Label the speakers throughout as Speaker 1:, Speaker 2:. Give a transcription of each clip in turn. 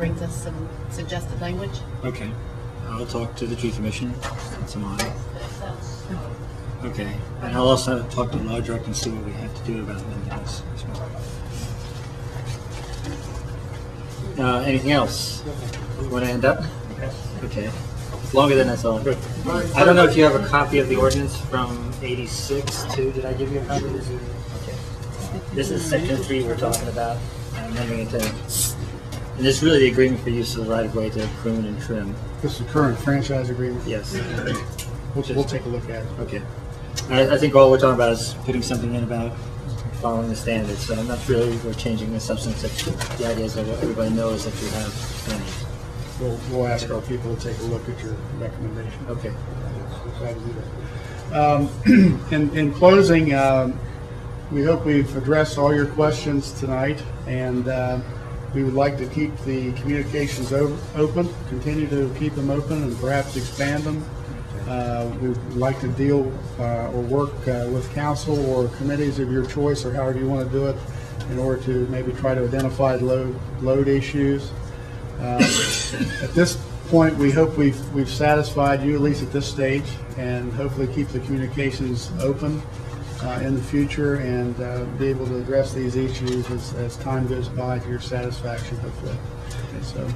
Speaker 1: brings us some suggested language.
Speaker 2: Okay, I'll talk to the tree commissioner, it's mine. Okay, and I'll also talk to law director and see what we have to do about Linda's. Uh, anything else? Want to end up? Okay, it's longer than I thought. I don't know if you have a copy of the ordinance from eighty-six too, did I give you a copy? This is- okay. This is section three we're talking about, and amending it to, and this is really the agreement for use of the right of way to prune and trim,
Speaker 3: This is the current franchise agreement.
Speaker 2: yes.
Speaker 3: We'll, we'll take a look at it.
Speaker 2: Okay. I, I think all we're talking about is putting something in about following the standards, so I'm not really, we're changing the substance. of- The idea is that everybody knows that you have standards.
Speaker 3: We'll, we'll ask our people to take a look at your recommendation.
Speaker 2: Okay.
Speaker 3: Um, In, in closing, um, we hope we've addressed all your questions tonight, and uh, we would like to keep the communications o- open, continue to keep them open and perhaps expand them. Uh, We'd like to deal uh, or work uh, with council or committees of your choice, or however you want to do it, in order to maybe try to identify load, load issues. Um, At this point, we hope we've, we've satisfied you, at least at this stage, and hopefully keep the communications open uh, in the future and uh, be able to address these issues as, as time goes by to your satisfaction, hopefully. So,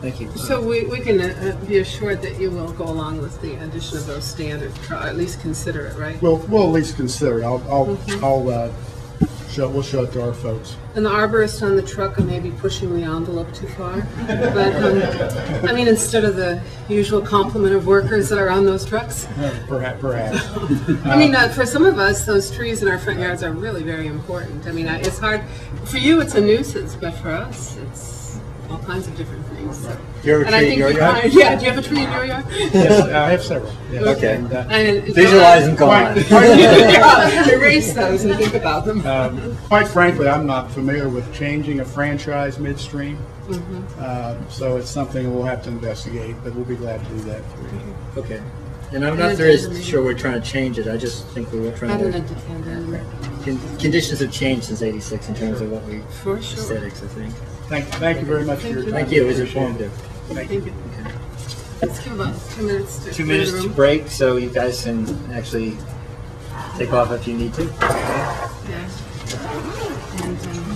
Speaker 2: Thank you.
Speaker 4: So we, we can uh, be assured that you will go along with the addition of those standard, tr- or at least consider it, right?
Speaker 3: we'll, we'll at least consider it. I'll, I'll, I'll, uh, show, we'll show it to our folks.
Speaker 4: And the arborist on the truck, I may be pushing the envelope too far. But, um, I mean, instead of the usual complement of workers that are on those trucks.
Speaker 3: Perhaps, perhaps.
Speaker 4: I mean, uh, for some of us, those trees in our front yards are really very important. I mean, I- it's hard, for you, it's a nuisance, but for us, it's all kinds of different things. so.
Speaker 2: Do you have a
Speaker 4: And I
Speaker 2: tree in
Speaker 4: think
Speaker 2: your
Speaker 4: you
Speaker 2: yard?
Speaker 4: find- Yeah, do you have a tree in your yard?
Speaker 3: Yes, I have several. yes.
Speaker 2: Okay.
Speaker 3: And, uh,
Speaker 4: And it's-
Speaker 2: Visualize and go on.
Speaker 3: Quite- quite-
Speaker 4: Yeah, Erase those and think about them.
Speaker 3: Um, Quite frankly, I'm not familiar with changing a franchise midstream.
Speaker 2: Mm-hmm.
Speaker 3: Um, So it's something we'll have to investigate, but we'll be glad to do that for you.
Speaker 2: Okay. And I'm not very sure we're trying to change it, I just think we were trying
Speaker 4: Not an
Speaker 2: to,
Speaker 4: attendant,
Speaker 2: con- conditions have changed since eighty-six in terms of what we,
Speaker 4: for sure.
Speaker 2: aesthetics, I think.
Speaker 3: Thank, thank you very much for your time.
Speaker 2: Thank you, it was
Speaker 3: Appreciate
Speaker 2: informative.
Speaker 3: Thank you.
Speaker 4: Thank you. Let's give us two minutes to.
Speaker 2: Two minutes to break, so you guys can actually take off if you need to.
Speaker 4: Yeah. And, um,